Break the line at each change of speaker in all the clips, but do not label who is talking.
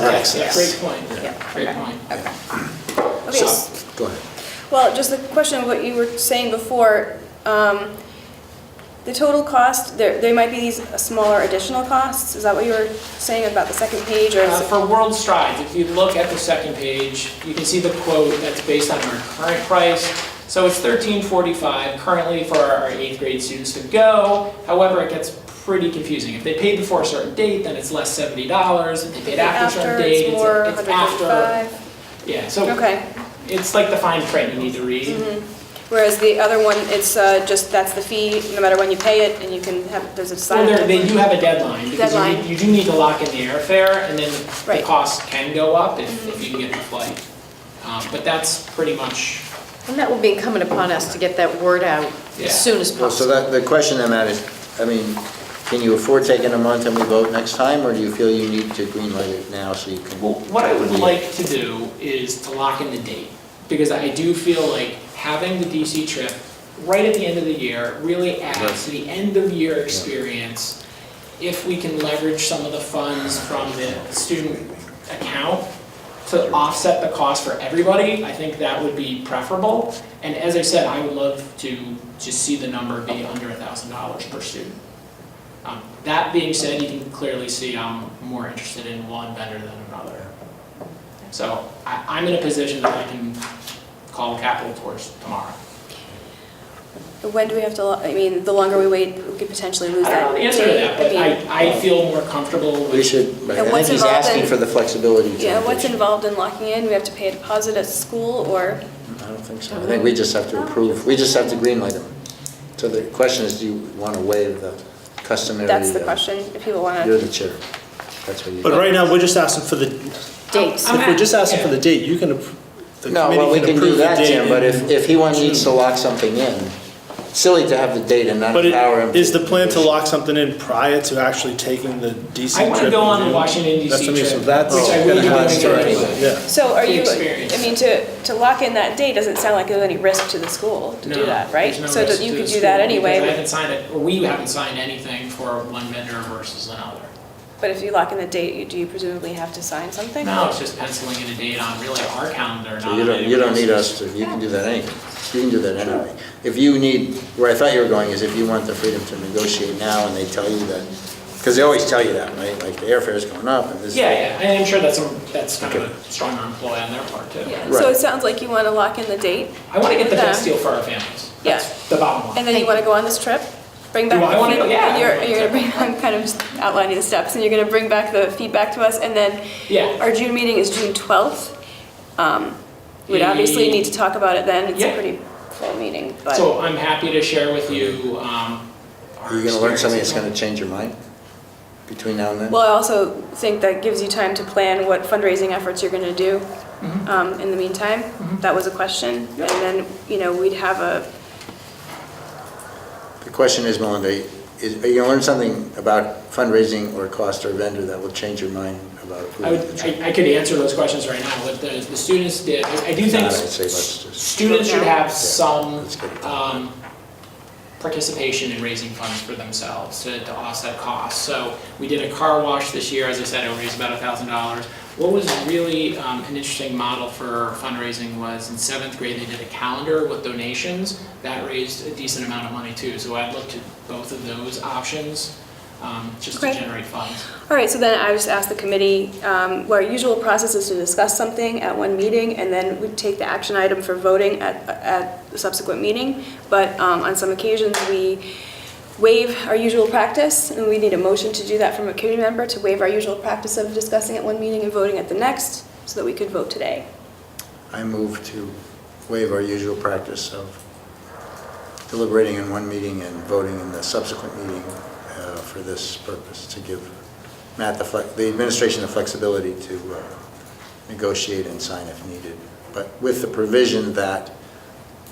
Great
access.
point,
Yeah,
great
okay,
point.
Okay. Okay,
So,
s-
go ahead.
well, just the question of what you were saying before, um, the total cost, there, there might be these smaller additional costs, is that what you were saying about the second page, or?
Uh, For World Strides, if you look at the second page, you can see the quote that's based on our current price. So it's thirteen forty-five currently for our eighth grade students to go. However, it gets pretty confusing. If they paid before a certain date, then it's less seventy dollars. If they paid after a certain date,
It's
it's
more,
it's after.
155,
Yeah, so
okay.
it's like the fine print you need to read.
Whereas the other one, it's uh, just, that's the fee, no matter when you pay it, and you can have, there's a
Well,
sign.
they're- they do have a deadline because you
Deadline.
need- you do need to lock in the airfare and then the
Right.
cost can go up if if you can get the flight. Um, But that's pretty much
And that will be incumbent upon us to get that word out
Yeah.
as soon as
Well, so
possible.
that, the question I'm at is, I mean, can you afford taking a month and we vote next time? Or do you feel you need to greenlight it now so you can?
Well, what I would like to do is to lock in the date, because I do feel like having the DC trip right at the end of the year really adds to the end-of-year experience. If we can leverage some of the funds from the student account to offset the cost for everybody, I think that would be preferable. And as I said, I would love to just see the number be under a thousand dollars per student. Um, That being said, you can clearly see I'm more interested in one vendor than another. So I, I'm in a position that I can call capital towards tomorrow.
When do we have to, lo- I mean, the longer we wait, we could potentially
I
lose that.
don't know the answer to
date.
that, but
mean-
I, I feel more comfortable
We
with,
should, I think
what's
he's
involved
asking
in-
for the flexibility. to
Yeah, what's
negotiate.
involved in locking in? We have to pay a deposit at school or,
I don't think so. I think we just have to approve, we just have to greenlight them. So the question is, do you want to waive the customary?
that's the
uh,
question, if people want
You're
to.
the chair. That's what you.
But right now, we're just asking for the,
Dates.
I'm
if we're just
at-
asking for the
yeah.
date, you can, appro- the
No, well, we can
committee can
do
approve the
that,
date.
Tim, but if,
and-
if he one needs to lock something in, silly to have the date and not
But
empower him.
it- is the plan to lock something in prior to actually taking the DC
I
trip?
wanna go
in
on the
June?
Washington DC
That's what I mean, so
trip,
that's
which I
gonna
really
have
wanna
to
go
start
anyway.
anyway, Yeah.
So are
The
you,
experience.
I mean, to, to lock in that date doesn't sound like there's any risk to the school to
No,
do that, right?
there's no
So
risk
that you
to
could
the
do that
school, because I
anyway,
haven't signed it, or we haven't signed anything for one vendor versus another.
but if you lock in the date, you- do you presumably have to sign something?
Now it's just penciling in a date on really our calendar,
So
not
you don't, you
anyone
don't need
else's.
us to, you can do that anyway. You can do that anyway. If you need, where I thought you were going is if you want the freedom to negotiate now and they tell you that, because they always tell you that, right? Like the airfare's going up and this.
Yeah, yeah, and I'm sure that's, a- that's kind of a strong arm ploy on their part too.
Yeah,
Right.
so it sounds like you want to lock in the date
I want to get the
Yeah.
best deal for our families.
Yeah.
That's the bottom line.
and then you want to go on this trip? Bring back
Do I
the
wanna go? Yeah,
feedback?
I
You're,
wanna
you're
go.
gonna bring, I'm kind of just outlining the steps and you're gonna bring back the feedback to us and then
Yeah.
Our June meeting is June 12th. Um, We'd obviously need to talk about it then, it's a
Yeah.
pretty full meeting, but,
So I'm happy to share with you. um, our
Are you gonna learn something
experiences.
that's gonna change your mind between now and then?
well, I also think that gives you time to plan what fundraising efforts you're going to do um, in the meantime. That was a question. And then, you know, we'd have a,
The question is, Melinda, is, are you gonna learn something about fundraising or cost or vendor that will change your mind about
I
approving the
would,
trip?
I I could answer those questions right now, what the, the students did. I I do
Not,
think
I'd say let's just-
students should have some
let's get it done.
um, participation in raising funds for themselves to to offset costs. So we did a car wash this year, as I said, it raised about $1,000. What was really um, an interesting model for fundraising was in seventh grade, they did a calendar with donations. That raised a decent amount of money too. So I'd look to both of those options um, just to
Okay.
generate funds.
all right, so then I just asked the committee, um, where our usual process is to discuss something at one meeting, and then we take the action item for voting at, at the subsequent meeting. But um, on some occasions, we waive our usual practice, and we need a motion to do that from a committee member, to waive our usual practice of discussing at one meeting and voting at the next, so that we could vote today.
I move to waive our usual practice of deliberating in one meeting and voting in the subsequent meeting uh, for this purpose, to give Matt the, flex- the administration the flexibility to uh, negotiate and sign if needed, but with the provision that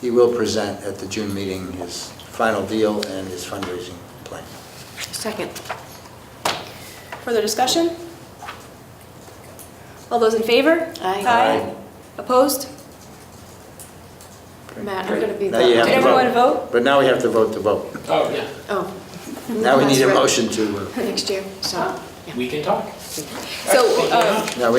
he will present at the June meeting his final deal and his fundraising plan.
Second.
Further discussion? All those in favor?
Aye.
Aye.
Opposed?
Matt, I'm going to be the...
Now you have
Did
to vote.
everyone vote?
But now we have to vote to vote.
Oh, yeah.
Oh.
Now we need a
That's
motion
right.
to, uh,
Next year.
So, yeah.
We can talk.
So, uh,
now we